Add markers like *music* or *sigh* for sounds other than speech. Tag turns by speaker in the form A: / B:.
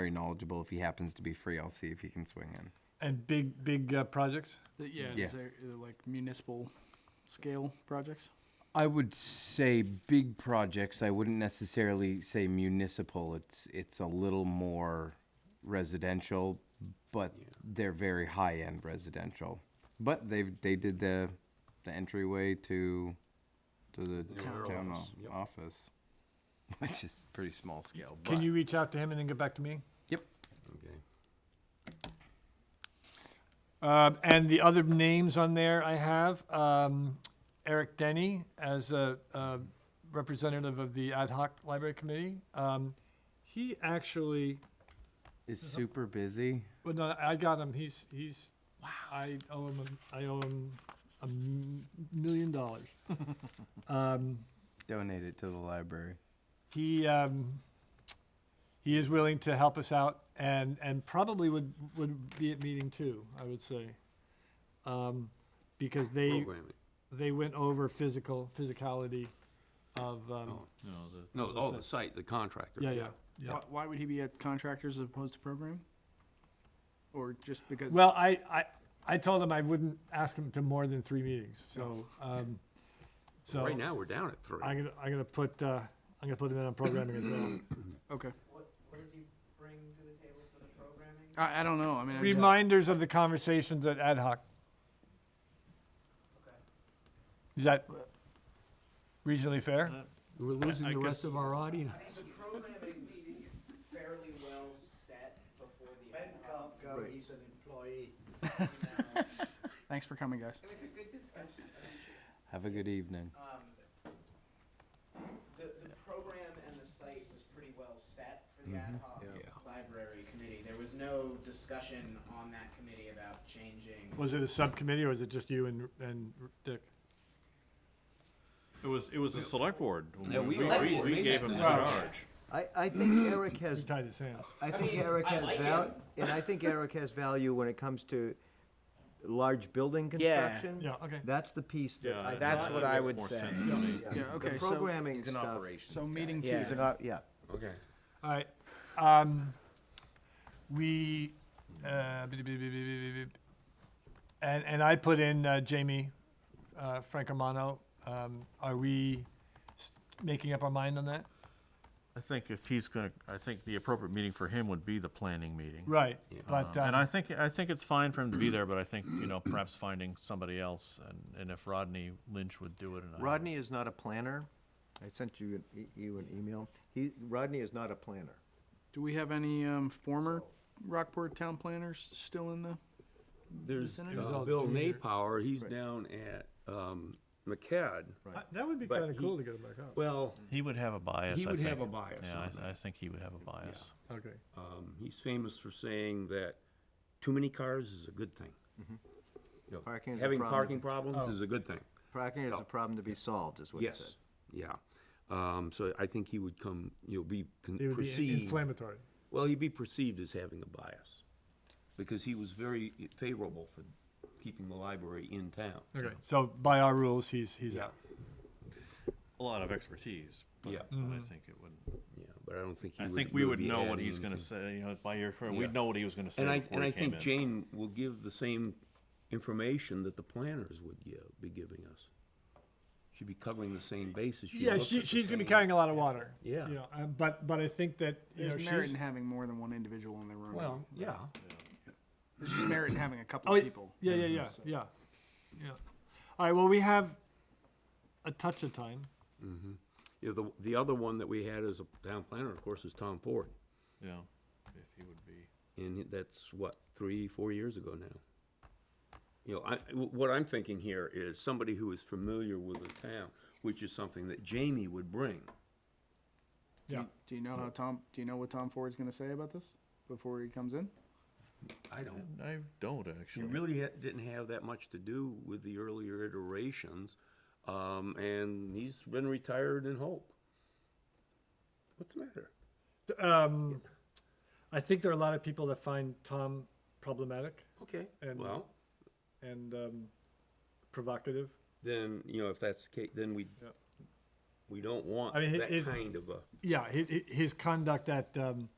A: very knowledgeable. If he happens to be free, I'll see if he can swing in.
B: And big, big uh, projects?
C: The- Yeah, and
A: Yeah.
C: is there uh, like municipal scale projects?
A: I would say big projects. I wouldn't necessarily say municipal. It's it's a little more residential, but they're very high end residential. But they they did the the entryway to to the town,
C: town
A: o- office. *laughs* which is pretty small scale. But
B: Can you reach out to him and then get back to me?
A: Yep.
D: Okay.
B: Um, and the other names on there I have, um, Eric Denny as a, uh representative of the ad hoc library committee. Um, he actually,
A: Is super busy.
B: well, no, I got him. He's, he's, I owe him, a- I owe him a m- million dollars. *laughs* Um,
A: Donate it to the library.
B: he um, he is willing to help us out and and probably would would be at meeting two i would say um, because they
D: Programming.
B: they went over physical physicality of um,
D: Oh,
E: No, the,
D: No,
B: the
D: oh,
B: site.
D: the site, the contractor.
B: yeah yeah yeah
C: Why, why would he be at contractors as opposed to programming? Or just because?
B: well I, I i told him i wouldn't ask him to more than three meetings so um, so
D: Right now, we're down at three.
B: i'm gonna i'm gonna put uh, i'm gonna put him in on programming as well
C: Okay.
F: What, what does he bring to the table for the programming?
C: I, I don't know. I mean, I just-
B: reminders of the conversations at ad hoc
F: Okay.
B: is that reasonably fair
D: We're losing the rest of our audience.
F: I think the programming meeting is fairly well set before the. Ben can't go, he's an employee.
C: thanks for coming, guys.
A: Have a good evening.
F: *laughs* The, the program and the site was pretty well set for the ad hoc
D: Yeah. Yeah.
F: library committee. There was no discussion on that committee about changing.
B: Was it a subcommittee or was it just you and, and Dick?
E: it was it was the select board.
D: Yeah,
E: we,
D: we-
E: we, we,
D: we
E: gave
D: had
E: him
D: the-
E: charge.
G: I, I think Eric
B: He
G: has,
B: tied his hands.
G: I
F: I
G: think
F: mean,
G: Eric
F: I
G: has
F: like
G: val,
F: him.
G: and I think Eric has value when it comes to large building
F: Yeah.
G: construction.
B: Yeah, okay.
G: That's the piece that
E: Yeah,
G: I.
F: That's
E: that
F: what
E: makes
F: I would
E: more
F: say.
E: sense to me.
C: Yeah,
G: The
C: okay, so,
G: programming stuff.
C: so meeting two.
F: Yeah.
G: He's an op- Yeah.
D: Okay.
B: All right. Um, we, uh, beep, beep, beep, beep, beep, beep, beep. and, and I put in uh, Jamie, uh, Francomano. Um, are we s- making up our mind on that?
E: I think if he's gonna, I think the appropriate meeting for him would be the planning meeting.
B: Right,
D: Yeah.
B: but,
E: And I
B: um,
E: think, I think it's fine for him to be there, but I think, you know, perhaps finding somebody else and, and if Rodney Lynch would do it. and I-
G: Rodney is not a planner. I sent you, an e- you an email. He, Rodney is not a planner.
C: Do we have any um, former Rockport town planners still in the?
D: There's
C: Senator? It was
D: uh,
B: all
D: Bill
B: junior.
D: Napower, he's down at um, McCad.
B: I- that would be
D: but
B: kinda
D: he-
B: cool to get him back up.
D: Well,
E: He would have a bias,
D: He
E: I
D: would have
E: think.
D: a bias
E: Yeah,
D: on
E: I, I think he would have a bias.
B: Okay.
D: um, he's famous for saying that too many cars is a good thing.
B: Mm-hmm.
D: You know,
G: Parking is a
D: Having
G: problem.
D: parking problems
B: Oh.
D: is a good thing.
G: Parking is a problem to be solved, is what he said.
D: Yes, yeah. Um, So I think he would come, you'll be con-
B: It would be
D: perceived,
B: inflammatory.
D: well, he'd be perceived as having a bias, because he was very favorable for keeping the library in town.
B: Okay, so by our rules, he's, he's
D: Yeah,
B: out.
E: A lot of expertise, but
D: Yeah.
E: but I think it would,
D: yeah, but I don't think he
E: I
D: would.
E: think we would
D: be
E: know what
D: adding
E: he's gonna
D: anything.
E: say, you know, by your,
D: Yeah.
E: we'd know what he was gonna say
D: And I,
E: before
D: and
E: he
D: I
E: came
D: think
E: in.
D: Jane will give the same information that the planners would give, be giving us. She'd be covering the same bases.
B: Yeah,
D: looks at
B: she,
D: the
B: she's gonna be
D: same-
B: carrying a lot of water.
D: Yeah.
B: You know, uh, but, but I think that, you know,
C: There's merit
B: she's.
C: in having more than one individual in the room.
D: Well, yeah,
C: There's just merit in having a couple
B: Oh,
C: of
B: yeah,
C: people.
B: yeah, yeah, yeah, yeah, yeah. All right, well, we have a touch of time.
D: you know, the, the other one that we had as a town planner, of course, is Tom Ford.
E: Yeah, if he would be.
D: And that's what, three, four years ago now. You know, I, wh- what I'm thinking here is somebody who is familiar with the town, which is something that Jamie would bring.
B: Yeah.
C: Do you know how Tom? Do you know what Tom Ford's going to say about this before he comes in?
D: I don't,
E: I don't
D: She
E: actually.
D: really ha- didn't have that much to do with the earlier iterations, um, and he's been retired in Hope. What's the matter?
B: Um, I think there are a lot of people that find Tom problematic
D: Okay,
B: And-
D: well,
B: and um, provocative.
D: then, you know, if that's the case, then we,
B: Yeah.
D: we don't want
B: I mean, hi-
D: that
B: his-
D: kind of a,
B: Yeah, his, his conduct at um,